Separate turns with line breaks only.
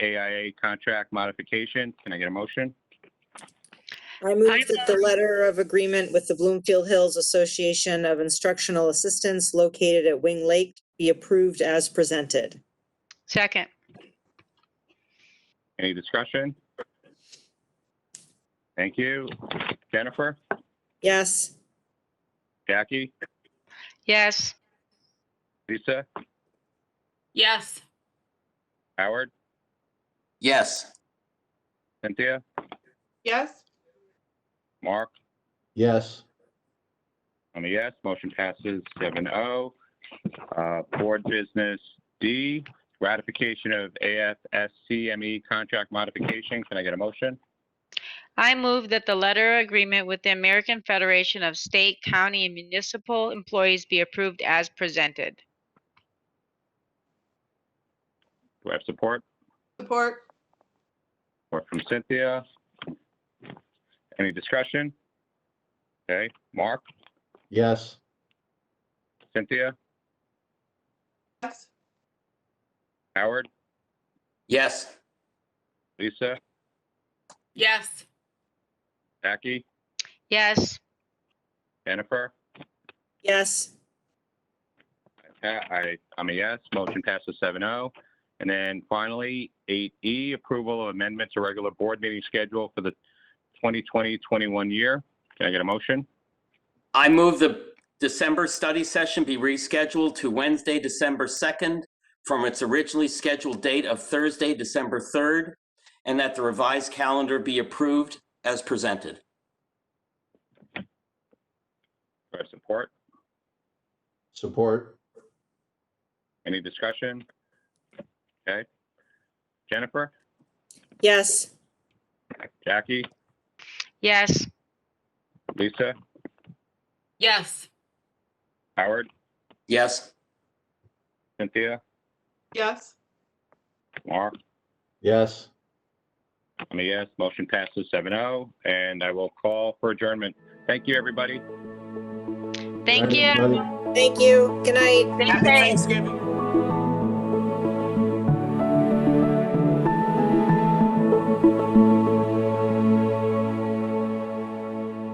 AIA contract modification. Can I get a motion?
I move that the letter of agreement with the Bloomfield Hills Association of Instructional Assistants located at Wing Lake be approved as presented.
Second.
Any discussion? Thank you. Jennifer,
Yes,
Jackie,
Yes.
Lisa,
Yes.
Howard,
yes,
Cynthia,
yes,
Mark,
yes,
I'm a yes. Motion passes 7-0. Uh, Board Business D, ratification of AFSCME E contract modification. Can I get a motion?
I move that the letter agreement with the American Federation of State, County, and Municipal Employees be approved as presented.
Do I have support?
support,
Or from Cynthia? Any discussion? Okay, Mark,
yes,
Cynthia,
yes,
Howard,
yes,
Lisa,
Yes.
Jackie,
Yes.
Jennifer?
yes,
Pa- I, I'm a yes. Motion passes 7-0. And then finally, eight E, approval of amendment to regular board meeting schedule for the 2020-21 year. Can I get a motion?
I move the December study session be rescheduled to Wednesday, December 2nd from its originally scheduled date of Thursday, December 3rd, and that the revised calendar be approved as presented.
Do I have support?
support,
Any discussion? Okay. Jennifer,
yes,
Jackie,
Yes.
Lisa,
Yes.
Howard,
Yes,
Cynthia,
yes,
Mark,
yes.
I'm a yes. Motion passes 7-0, and I will call for adjournment. Thank you, everybody.
Thank
Right,
you.
everybody.
thank you, good night.
Thank you.
Thanksgiving.